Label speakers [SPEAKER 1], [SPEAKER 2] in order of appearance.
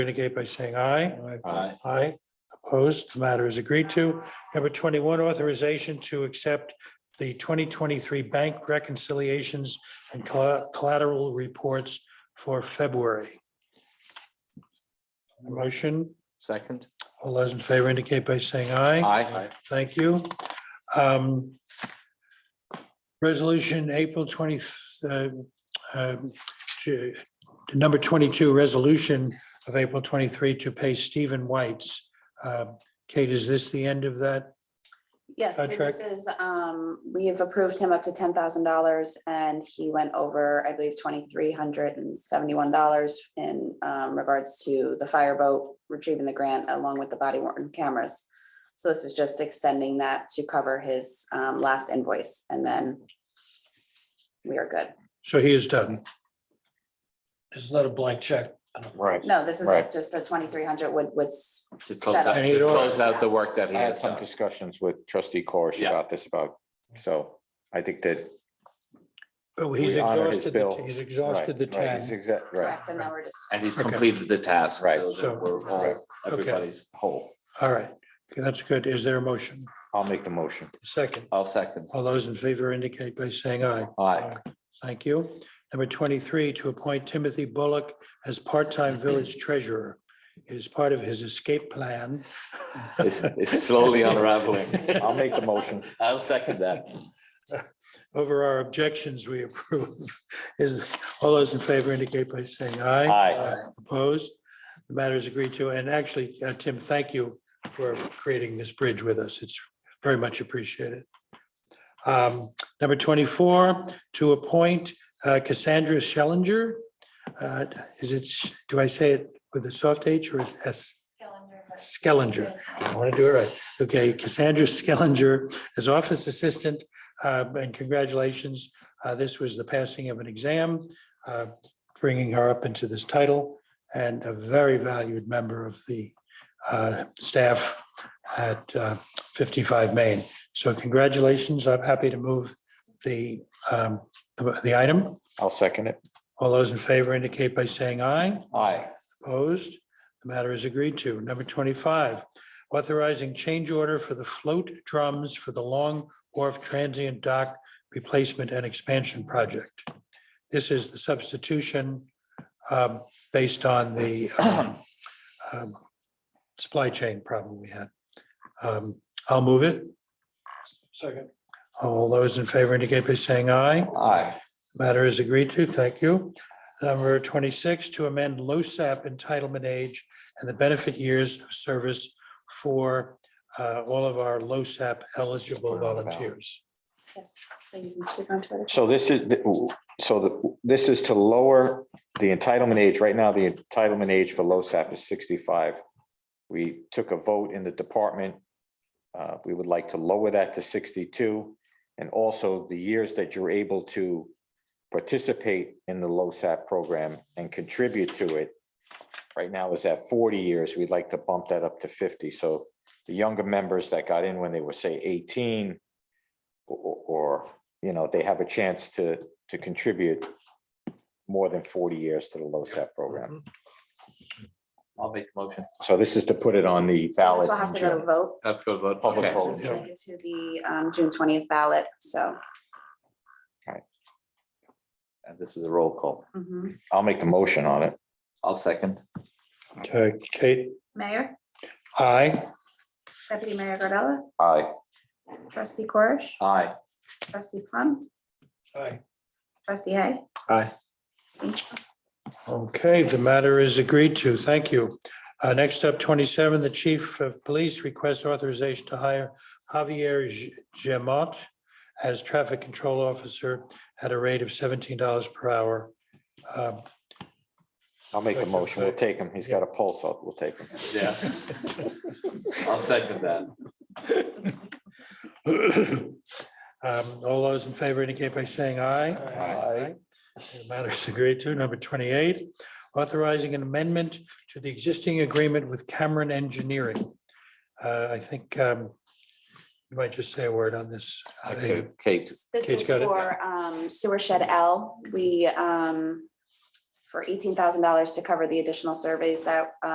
[SPEAKER 1] indicate by saying aye.
[SPEAKER 2] Aye.
[SPEAKER 1] Aye. Opposed, the matter is agreed to. Number twenty-one, authorization to accept the twenty twenty-three bank reconciliations and colla- collateral reports for February. Motion,
[SPEAKER 2] Second?
[SPEAKER 1] all those in favor indicate by saying aye.
[SPEAKER 2] Aye.
[SPEAKER 1] Thank you. Um, Resolution April 20, uh, um, to- number 22, resolution of April 23 to pay Stephen White's. Um, Kate, is this the end of that?
[SPEAKER 3] Yes, so
[SPEAKER 1] contract?
[SPEAKER 3] this is, um, we have approved him up to ten thousand dollars and he went over, I believe, twenty-three hundred and seventy-one dollars in, um, regards to the fireboat retrieving the grant along with the body worn cameras. So this is just extending that to cover his, um, last invoice and then we are good.
[SPEAKER 1] So he is done. It's not a blank check.
[SPEAKER 4] Right.
[SPEAKER 3] No, this is
[SPEAKER 4] Right.
[SPEAKER 3] it, just the twenty-three hundred would, would, s-
[SPEAKER 2] To close
[SPEAKER 3] Set
[SPEAKER 2] out,
[SPEAKER 3] up.
[SPEAKER 1] Any
[SPEAKER 2] to close
[SPEAKER 3] order?
[SPEAKER 2] out the work that he
[SPEAKER 4] I had
[SPEAKER 2] has
[SPEAKER 4] some
[SPEAKER 2] done.
[SPEAKER 4] discussions with trustee Corish
[SPEAKER 2] Yeah.
[SPEAKER 4] about this about, so I think that.
[SPEAKER 1] Oh, He's
[SPEAKER 4] We honor his
[SPEAKER 1] exhausted, the-
[SPEAKER 4] bill.
[SPEAKER 1] he's exhausted the
[SPEAKER 4] right, right, he's
[SPEAKER 1] time.
[SPEAKER 4] exact- right.
[SPEAKER 3] correct, and then we're just,
[SPEAKER 2] And he's
[SPEAKER 1] Okay.
[SPEAKER 2] completed the task.
[SPEAKER 4] Right.
[SPEAKER 2] so that
[SPEAKER 1] So-
[SPEAKER 2] we're all-
[SPEAKER 4] Right.
[SPEAKER 2] Everybody's whole.
[SPEAKER 1] All right, Okay, that's good. Is there a motion?
[SPEAKER 4] I'll make the motion.
[SPEAKER 1] Second,
[SPEAKER 2] I'll second.
[SPEAKER 1] all those in favor indicate by saying aye.
[SPEAKER 2] Aye.
[SPEAKER 1] Thank you. Number twenty-three, to appoint Timothy Bullock as part-time village treasurer. It is part of his escape plan.
[SPEAKER 2] It's it's slowly unraveling.
[SPEAKER 4] I'll make the motion.
[SPEAKER 2] I'll second that.
[SPEAKER 1] Over our objections, we approve. Is, all those in favor indicate by saying aye.
[SPEAKER 2] Aye.
[SPEAKER 1] Opposed? The matter is agreed to. And actually, uh, Tim, thank you for creating this bridge with us. It's very much appreciated. Um, Number 24, to appoint uh, Cassandra Schellinger. Uh, Is it, do I say it with a soft H or is S? Skellinger. I want to do it right. Okay, Cassandra Skellinger as office assistant. uh, And congratulations. Uh, This was the passing of an exam, uh, bringing her up into this title and a very valued member of the uh, staff at uh, 55 Main. So congratulations. I'm happy to move the, um, the the item.
[SPEAKER 4] I'll second it.
[SPEAKER 1] All those in favor indicate by saying aye.
[SPEAKER 2] Aye.
[SPEAKER 1] Opposed? The matter is agreed to. Number 25, authorizing change order for the float drums for the Long Wharf Transient Dock Replacement and Expansion Project. This is the substitution um, based on the um, um, supply chain problem we had. Um, I'll move it. Second. All those in favor indicate by saying aye.
[SPEAKER 2] Aye.
[SPEAKER 1] Matter is agreed to. Thank you. Number twenty-six, to amend LoSAP entitlement age and the benefit years of service for uh, all of our LoSAP eligible volunteers.
[SPEAKER 3] yes, so you can speak on Twitter.
[SPEAKER 4] So this is, the- so the, this is to lower the entitlement age. Right now, the entitlement age for LoSAP is sixty-five. We took a vote in the department. Uh, we would like to lower that to sixty-two. And also the years that you're able to participate in the LoSAP program and contribute to it. Right now is at forty years. We'd like to bump that up to fifty. So the younger members that got in when they were, say, eighteen or- or, or you know, they have a chance to, to contribute more than forty years to the LoSAP
[SPEAKER 3] Mm-hmm.
[SPEAKER 4] program.
[SPEAKER 2] I'll make the motion.
[SPEAKER 4] So this is to put it on the
[SPEAKER 3] So
[SPEAKER 4] ballot.
[SPEAKER 3] this will have
[SPEAKER 4] in
[SPEAKER 3] to go to
[SPEAKER 4] June.
[SPEAKER 3] vote.
[SPEAKER 2] Have to vote.
[SPEAKER 4] Public
[SPEAKER 2] Okay.
[SPEAKER 4] vote.
[SPEAKER 3] Yes, we'll make it To the um, June twentieth ballot, so.
[SPEAKER 2] And this is a roll call.
[SPEAKER 1] Mm-hmm.
[SPEAKER 4] I'll make the motion on it.
[SPEAKER 2] I'll second.
[SPEAKER 1] Okay, Kate,
[SPEAKER 3] Mayor,
[SPEAKER 1] aye.
[SPEAKER 3] Deputy Mayor Gardella,
[SPEAKER 4] Aye.
[SPEAKER 3] Trustee Corish,
[SPEAKER 2] Aye.
[SPEAKER 3] Trustee Plum,
[SPEAKER 1] Aye.
[SPEAKER 3] Trustee Hay.
[SPEAKER 1] Okay, the matter is agreed to. Thank you. Uh, Next up, twenty-seven, the chief of police requests authorization to hire Javier G- Gemot as traffic control officer at a rate of seventeen dollars per hour. Um,
[SPEAKER 4] I'll make the
[SPEAKER 1] Second,
[SPEAKER 4] motion. We'll
[SPEAKER 1] second.
[SPEAKER 4] take him. He's got a pulse. so We'll take him.
[SPEAKER 2] Yeah. I'll second that.
[SPEAKER 1] Um, All those in favor indicate by saying aye. Aye. The matter is agreed to. Number twenty-eight, authorizing an amendment to the existing agreement with Cameron Engineering. Uh, I think um, you might just say a word on this. I think-
[SPEAKER 2] Kate.
[SPEAKER 3] This this
[SPEAKER 1] Kate's
[SPEAKER 3] is
[SPEAKER 1] got it.
[SPEAKER 3] for um, sewer shed L. We, um, for eighteen thousand dollars to cover the additional surveys that